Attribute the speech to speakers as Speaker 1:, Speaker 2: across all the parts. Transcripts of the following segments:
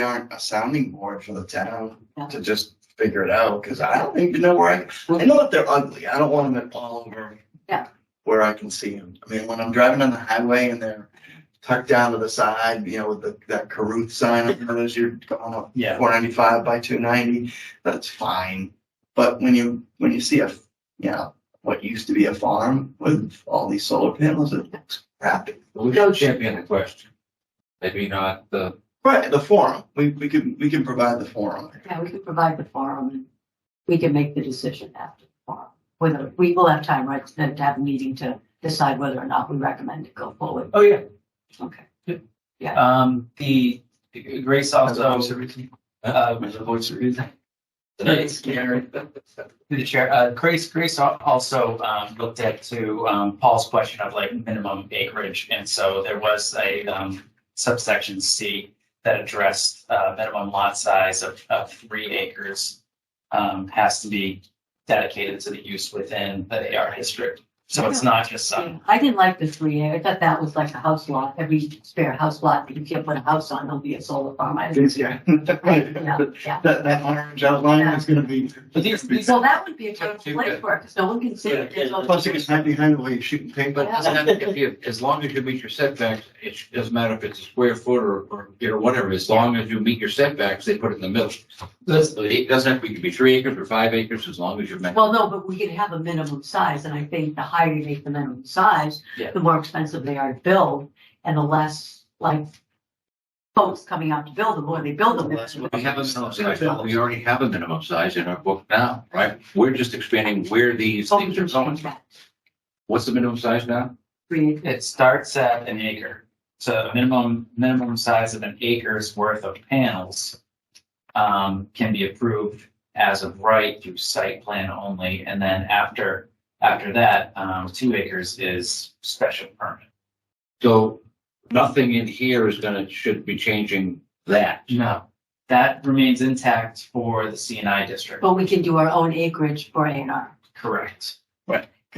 Speaker 1: we aren't a sounding board for the town to just figure it out, because I don't even know where I, I know that they're ugly, I don't want them all over.
Speaker 2: Yeah.
Speaker 1: Where I can see them, I mean, when I'm driving on the highway and they're tucked down to the side, you know, with the, that Caruth sign, up there as you're going up
Speaker 3: Yeah.
Speaker 1: four ninety-five by two ninety, that's fine. But when you, when you see a, you know, what used to be a farm with all these solar panels, it looks crappy.
Speaker 4: But we should champion the question. Maybe not the,
Speaker 1: Right, the forum, we, we can, we can provide the forum.
Speaker 2: Yeah, we can provide the forum and we can make the decision after the forum. Whether, we will have time, right, to to have a meeting to decide whether or not we recommend it go forward.
Speaker 3: Oh, yeah.
Speaker 2: Okay.
Speaker 3: Um, the Grace
Speaker 1: As a voice
Speaker 3: also,
Speaker 1: of reason.
Speaker 3: uh,
Speaker 1: As a voice of reason.
Speaker 3: it's Gary. Through the chair, uh, Grace, Grace al- also, um, looked at to, um, Paul's question of like minimum acreage. And so there was a, um, subsection C that addressed, uh, minimum lot size of, of three acres. Um, has to be dedicated to the use within the AR district. So it's not just some,
Speaker 2: I didn't like the three A. I thought that was like a house lot, every spare house lot, that you can't put a house on, it'll be a solar farm. I didn't-
Speaker 1: Yeah.
Speaker 2: Yeah,
Speaker 1: That,
Speaker 2: yeah.
Speaker 1: that orange outline is gonna be.
Speaker 3: But these- these-
Speaker 2: So that would be a terrible place for it, because no one can see it. There's no-
Speaker 1: Plus you can hide behind the way you're shooting
Speaker 4: but
Speaker 1: paintball.
Speaker 4: then if you, as long as you meet your setbacks, it sh- doesn't matter if it's a square foot or, or, you know, whatever, as long as you meet your setbacks, they put it in the middle. It doesn't have to be- it could be three acres or five acres, as long as you're. met-
Speaker 2: Well, no, but we can have a minimum size, and I think the higher you make the minimum size,
Speaker 3: Yeah.
Speaker 2: the more expensive they are to build, and the less, like, folks coming out to build them, or they build them.
Speaker 1: Unless we-
Speaker 4: We have a minimum size, we already have a minimum size in our book now, right? We're just expanding where these
Speaker 2: So we
Speaker 4: things
Speaker 2: can
Speaker 4: are going.
Speaker 2: change that.
Speaker 4: What's the minimum size now?
Speaker 2: Three-
Speaker 3: It starts at an acre, so a minimum, minimum size of an acre's worth of panels um, can be approved as of right through site plan only, and then after, after that, um, two acres is special permit.
Speaker 4: So nothing in here is gonna, should be changing that.
Speaker 3: No, that remains intact for the CNI district.
Speaker 2: But we can do our own acreage for A and R.
Speaker 3: Correct.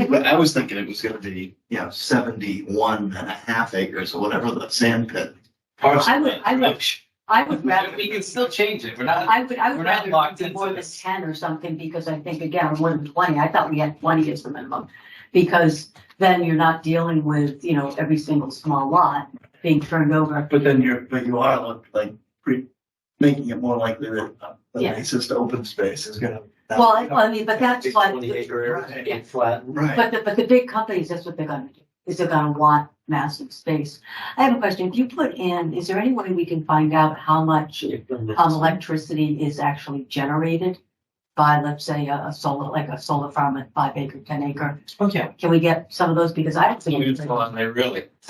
Speaker 1: But I was thinking it was gonna be, you know, seventy-one and a half acres or whatever the sand pit.
Speaker 2: I would, I would, I would rather.
Speaker 3: We can still change it, we're not,
Speaker 2: I would, I
Speaker 3: we're
Speaker 2: would
Speaker 3: not
Speaker 2: rather
Speaker 3: locked
Speaker 2: do
Speaker 3: into
Speaker 2: more than
Speaker 3: this.
Speaker 2: ten or something, because I think, again, more than twenty, I thought we had twenty as the minimum. Because then you're not dealing with, you know, every single small lot being turned over.
Speaker 1: But then you're, but you are look- like, pre- making it more likely that uh, the
Speaker 2: Yeah.
Speaker 1: nicest open space is gonna.
Speaker 2: Well, I- I mean, but that's
Speaker 5: Big
Speaker 2: what,
Speaker 5: Twenty acre
Speaker 1: Right.
Speaker 5: and flat.
Speaker 1: Right,
Speaker 2: but the, but the big companies, that's what they're gonna do, is they're gonna want massive space. I have a question, if you put in, is there any way we can find out how much um, electricity is actually generated by, let's say, a, a solar, like a solar farm at five acre, ten acre?
Speaker 3: okay,
Speaker 2: Can we get some of those? Because I don't think,
Speaker 4: Really?
Speaker 3: it's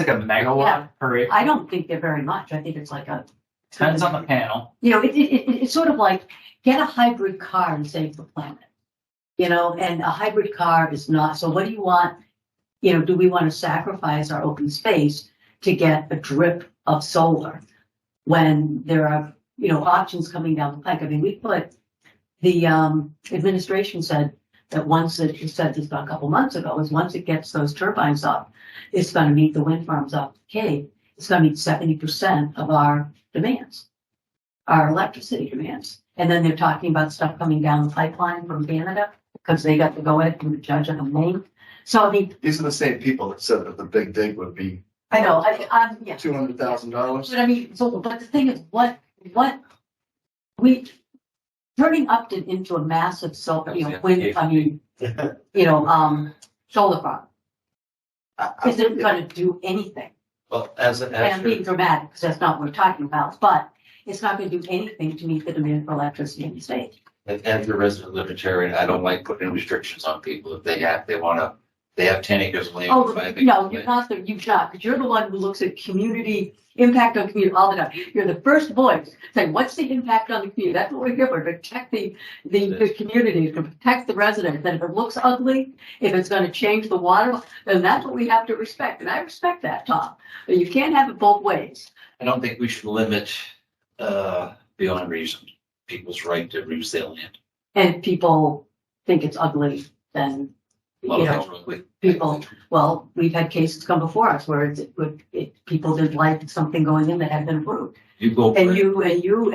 Speaker 3: like a megawatt per acre,
Speaker 2: I don't think they're very much. I think it's like a,
Speaker 3: depends on the panel.
Speaker 2: you know, it, it, it, it's sort of like, get a hybrid car and save the planet. You know, and a hybrid car is not, so what do you want? You know, do we want to sacrifice our open space to get a drip of solar? When there are, you know, options coming down the pike. I mean, we put, the, um, administration said that once it, it said this about a couple months ago, is once it gets those turbines up, it's gonna meet the wind farms up the Cape. It's gonna meet seventy percent of our demands our electricity demands. And then they're talking about stuff coming down the pipeline from Canada because they got to go ahead and judge on the main. So I mean,
Speaker 1: these are the same people that said that the big dig would be
Speaker 2: I know, I, I'm, yeah.
Speaker 1: two hundred thousand dollars.
Speaker 2: But I mean, so, but the thing is, what, what, we, turning Upton into a massive solar, you know, wind, I mean, you know, um, solar farm, isn't gonna do anything.
Speaker 5: Well, as, a-
Speaker 2: And I'm
Speaker 5: as,
Speaker 2: being
Speaker 5: your-
Speaker 2: dramatic, because that's not what we're talking about, but it's not gonna do anything to meet the demand for electricity in the state.
Speaker 4: And as a resident libertarian, I don't like putting restrictions on people if they have, they wanna, they have ten acres of land.
Speaker 2: Oh,
Speaker 4: five acres
Speaker 2: no,
Speaker 4: of
Speaker 2: you're
Speaker 4: land.
Speaker 2: not, the you're not, because you're the one who looks at community, impact on community all the time. You're the first voice saying, what's the impact on the community? That's what we're here for, to protect the, the, the community, to protect the residents. And if it looks ugly, if it's gonna change the water, then that's what we have to respect. And I respect that, Tom. But you can't have it both ways.
Speaker 4: I don't think we should limit, uh, beyond reason, people's right to use their land.
Speaker 2: And if people think it's ugly, then,
Speaker 4: A
Speaker 2: you
Speaker 4: lot of
Speaker 2: know,
Speaker 4: things are ugly.
Speaker 2: people, well, we've had cases come before us where it's, it, it, people didn't like something going in that had been approved.
Speaker 4: You go. for it.
Speaker 2: And you, and you